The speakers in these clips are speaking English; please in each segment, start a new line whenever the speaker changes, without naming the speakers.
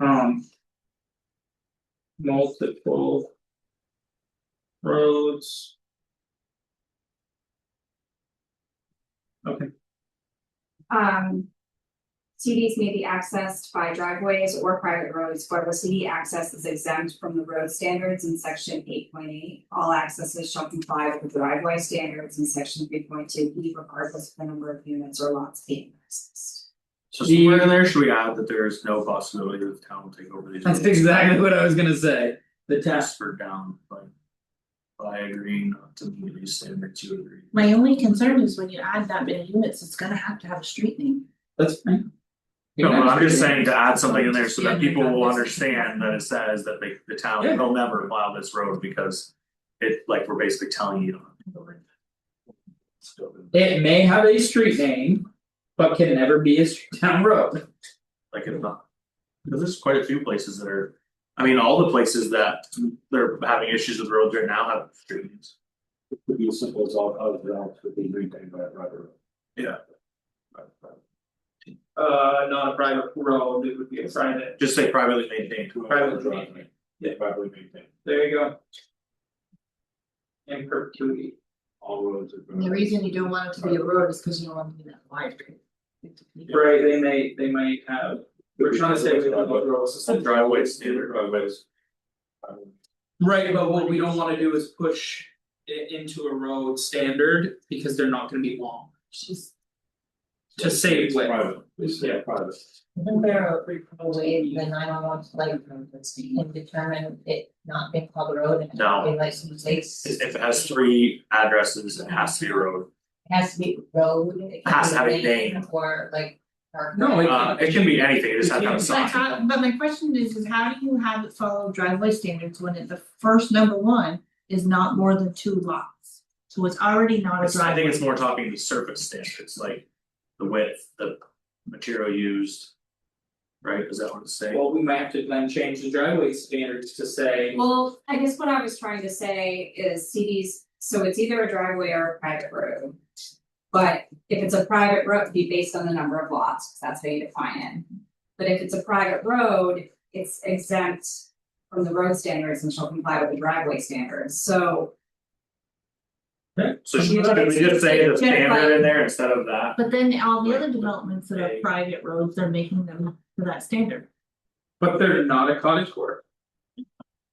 um. Multiple. Roads. Okay,
Um. CDs may be accessed by driveways or private roads, wherever CD access is exempt from the road standards in section eight point eight. All accesses shall comply with the driveway standards in section three point two, E regardless of the number of units or lots being accessed.
So somewhere in there, should we add that there is no possibility that the town will take over these?
that's exactly what I was gonna say, the test,
Tasks for down, but. By agreeing not to meet these standards, you agree.
My only concern is when you add that many units, it's gonna have to have a street name.
that's fine.
No, but I'm just saying to add something in there so
Yeah,
that
no,
people will
that's-
understand that it says that they, the town
Yeah.
will never plow this road because. It, like, we're basically telling you. don't.
It may have a street name, but can never be a street town road,
Like it's not. Cause there's quite a few places that are, I mean, all the places that they're having issues with roads right now have street names.
It could be as simple as all other grounds could be maintained by a driver.
Yeah.
Right, right.
uh, not a private road, it would be a private,
Just say privately maintained.
Private driveway.
Yeah, privately maintained,
there you go. In perpetuity,
all roads are.
And the reason you don't want it to be a road is because you don't want it to be that wide.
right, they may, they might have, we're trying to say we don't want roads.
The driveway standard.
Driveways.
Right, but what we don't wanna do is push it into a road standard, because they're not gonna be long,
She's.
to save width.
Private, it's
Yeah.
private.
Isn't there a probably the nine one one flight road that's being determined it not being called a road and
No.
having like some mistakes?
If if it has three addresses, it has to be a road.
It Has to be road, it
Has to
can
have a
be lane
name.
or like. park.
No, it-
Uh, it can be anything, it just has to have a
But
sign.
how, but my question is, is how do you have it follow driveway standards when it, the first number one is not more than two lots? So it's already not a
It's- I
driveway.
think it's more talking the surface standards, like the width, the material used. Right, is that what it's saying?
Well, we might have to then change the driveway standards to say,
Well, I guess what I was trying to say is CDs, so it's either a driveway or a private road. But if it's a private road, it'd be based on the number of lots, because that's how you define it. But if it's a private road, it's exempt from the road standards and shall comply with the driveway standards, so.
So should should we just say the standard in there instead of that?
But then all the other developments that are
Right.
private roads, they're making them to that standard.
but they're not a cottage court.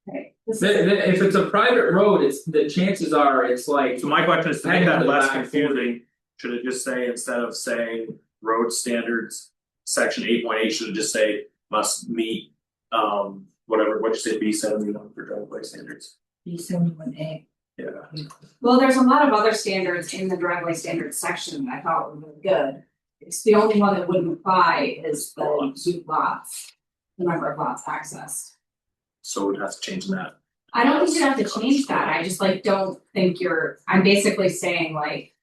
Right. This
Th-
is-
th- if it's a private road, it's, the chances are, it's like,
So my question is to make
Hang on
that
to the
less
back
confusing, should it just say instead of saying road standards? Section eight point eight, should it just say must meet um whatever, what'd you say, B seventy one for driveway standards?
B seventy one A.
Yeah,
Well, there's a lot of other standards in the driveway standards section that I thought were really good. It's the only one that wouldn't apply is the two lots, the number of lots accessed.
so we'd have to change that.
I don't think you have to change that, I just like don't think you're, I'm basically saying like.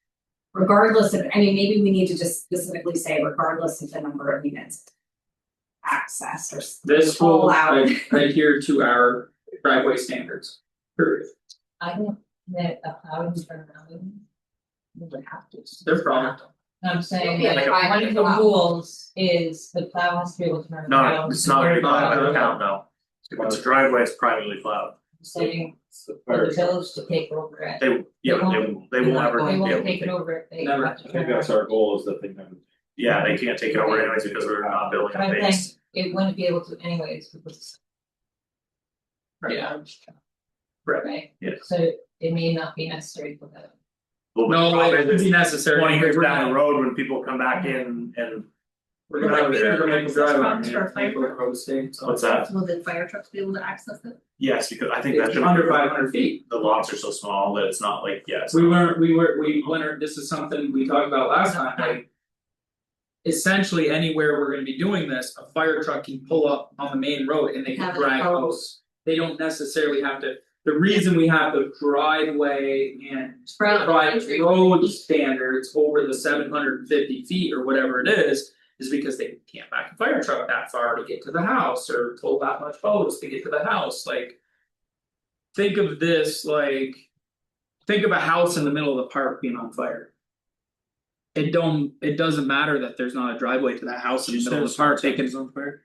Regardless of, I mean, maybe we need to just specifically say regardless of the number of units. Accessed or. s-
this will
All out.
ad- adhere to our driveway standards. Period.
I don't, that a plowing terminology.
Would have to.
Their problem.
I'm saying
Yeah,
like
that
a-
one of the rules is the plow has to be able to turn around.
No, it's not gonna be plowed by the town, no. If it's a driveway, it's privately plowed.
Saying
It's the
for the
fire-
village to take over it.
They, yeah, they won't, they won't ever,
They
be able
won't
to
take
take-
it over if they
Never.
have to
I
turn
think that's
around.
our goal is that they never.
yeah, they can't take it over anyways because we're not building
But I'm
a
saying-
base.
It wouldn't be able to anyways because. for
Yeah.
large truck,
Right.
Right?
Yeah.
So it may not be necessary for that.
Well, but the
No,
problem
it would
is
be necessary.
twenty years
We're
down
not-
the road when people come back in and
We're gonna have, we're gonna make a drive on
Access roads
here,
for
make a
fire.
road stands.
what's that?
Will the fire trucks be able to access it?
Yes, because I think that's.
It's under five hundred feet.
the lots are so small that it's not like, yes.
We weren't, we were, we wondered, this is something we talked about last time, like. Essentially, anywhere we're gonna be doing this, a fire truck can pull up on the main road and they can
Have a
drag
hose.
hose. They don't necessarily have to, the reason we have the driveway and private road standards over the seven hundred and fifty feet or whatever it is. Is because they can't back a fire truck that far to get to the house or pull that much hose to get to the house, like. Think of this like. Think of a house in the middle of the park being on fire. It don't, it doesn't matter that there's not a driveway to that house in the middle of the park, they can,
on fire?